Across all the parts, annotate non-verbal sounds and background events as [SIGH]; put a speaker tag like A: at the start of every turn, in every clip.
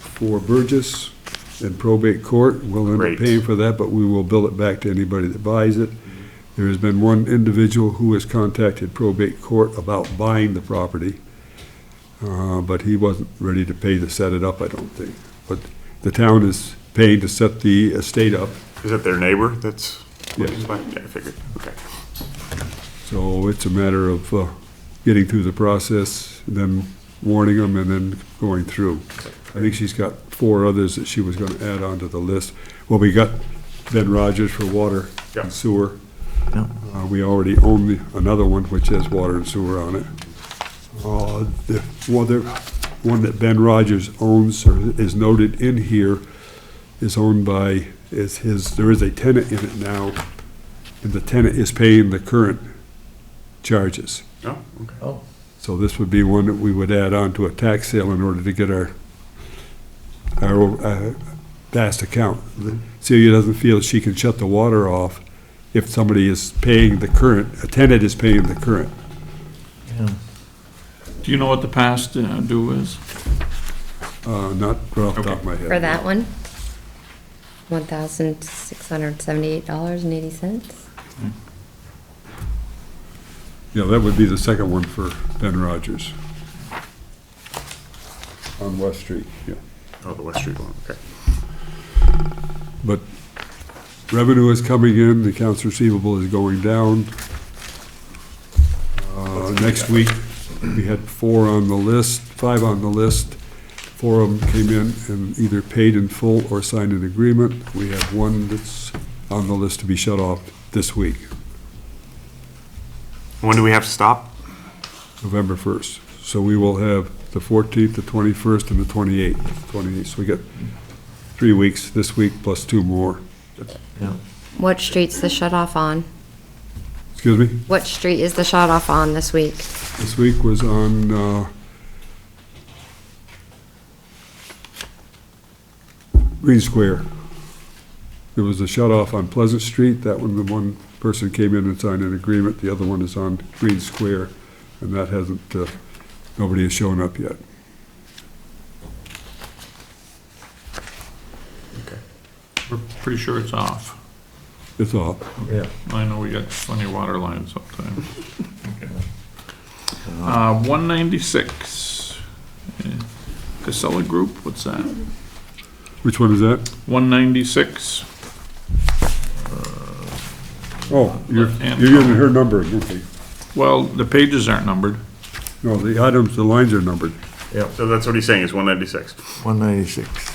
A: for Burgess and probate court. We'll end
B: Great.
A: up paying for that, but we will bill it back to anybody that buys it. There has been one individual who has contacted probate court about buying the property, uh, but he wasn't ready to pay to set it up, I don't think. But the town is paying to set the estate up,
B: Is that their neighbor that's?
A: Yes.
B: Yeah, I figured, okay.
A: so it's a matter of uh, getting through the process, then warning them, and then going through. I think she's got four others that she was going to add onto the list. Well, we got Ben Rogers for water
B: Yeah.
A: and sewer.
C: Yeah.
A: Uh, We already own the- another one, which has water and sewer on it. Uh, The well, the one that Ben Rogers owns or is noted in here is owned by, is his, there is a tenant in it now, and the tenant is paying the current charges.
B: Oh, okay.
C: Oh,
A: So this would be one that we would add on to a tax sale in order to get our, our uh, vast account. Celia doesn't feel she can shut the water off if somebody is paying the current, a tenant is paying the current.
C: yeah.
D: Do you know what the past uh, due is?
A: Uh, Not right off the top of my head.
E: For that one, one thousand six hundred seventy-eight dollars and eighty cents.
A: Yeah, that would be the second one for Ben Rogers. On West Street, yeah.
B: Oh, the West Street one, okay.
A: But revenue is coming in, the accounts receivable is going down. Uh, Next week, we had four on the list, five on the list. Four of them came in and either paid in full or signed an agreement. We have one that's on the list to be shut off this week,
B: When do we have to stop?
A: November 1st. So we will have the 14th, the 21st, and the 28th. 28th, so we got three weeks this week plus two more.
E: What street's the shut off on?
A: Excuse me?
E: What street is the shut off on this week?
A: This week was on, uh, Green Square. There was a shut off on Pleasant Street. That one, the one person came in and signed an agreement. The other one is on Green Square, and that hasn't, uh, nobody has shown up yet.
D: We're pretty sure it's off.
A: It's off.
C: Yeah.
D: I know we got funny water lines sometimes. Uh, one ninety-six. Uh, Casella Group, what's that?
A: Which one is that?
D: One ninety-six.
A: Oh, you're,
D: Left-hand
A: you're using her number, okay.
D: Well, the pages aren't numbered.
A: No, the items, the lines are numbered.
B: So that's what he's saying, is one ninety-six.
C: 196.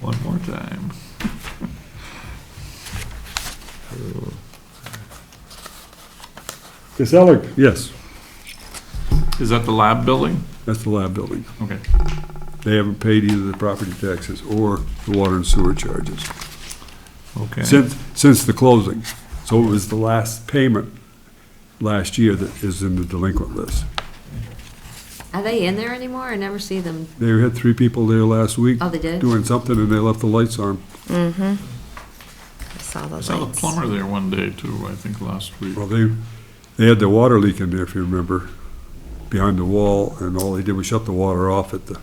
D: One more time.
A: Yes, Alex? Yes,
D: Is that the lab building?
A: that's the lab building.
D: Okay.
A: They haven't paid either the property taxes or the water and sewer charges.
D: Okay.
A: since, since the closing. So it was the last payment last year that is in the delinquent list.
F: Are they in there anymore? I never see them.
A: They had three people there last week
F: Oh, they did?
A: doing something, and they left the lights on.
E: I saw
D: I saw
E: the
D: the
E: lights.
D: plumber there one day too, I think last week.
A: Well, they, they had the water leak in there, if you remember, behind the wall, and all they did was shut the water off at the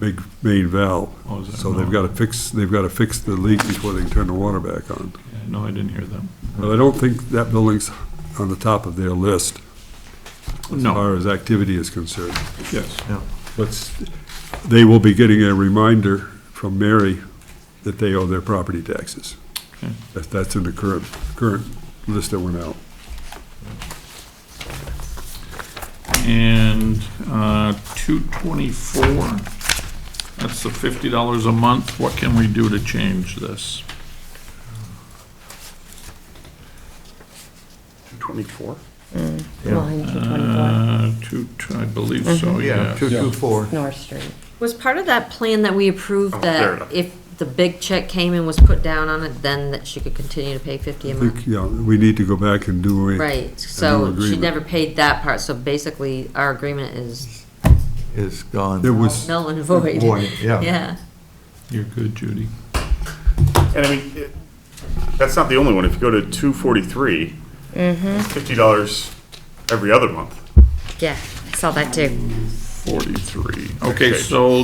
A: big main valve.
D: Oh, is that
A: So they've
D: wrong?
A: got to fix, they've got to fix the leak before they can turn the water back on.
D: Yeah, No, I didn't hear them.
A: But I don't think that building's on the top of their list as
D: No,
A: far as activity is concerned.
D: yes.
A: But s- they will be getting a reminder from Mary that they owe their property taxes.
D: Okay.
A: That's, that's in the current, current list that went out.
D: And uh, two twenty-four, that's the fifty dollars a month. What can we do to change this?
B: Twenty-four?
E: Behind two
D: Uh,
E: twenty-four
D: Two, I believe so, Mm-hmm. yeah.
C: 224.
E: North Street.
F: Was part of that plan that we
B: Oh,
F: approved
B: fair enough.
F: that if the big check came and was put down on it, then that she could continue to pay fifty a
A: I
F: month?
A: think, yeah, we need to go back and do a.
F: Right,
A: new
F: so she
A: agreement.
F: never paid that part, so basically our agreement is
C: Is gone.
A: There was,
F: null and void.
C: Void, yeah.
F: [LAUGHS] Yeah,
D: You're good, Judy.
B: And I mean, it- that's not the only one. If you go to two forty-three, fifty dollars every other month.
E: Yeah, I saw that too.
D: Forty-three. Okay, so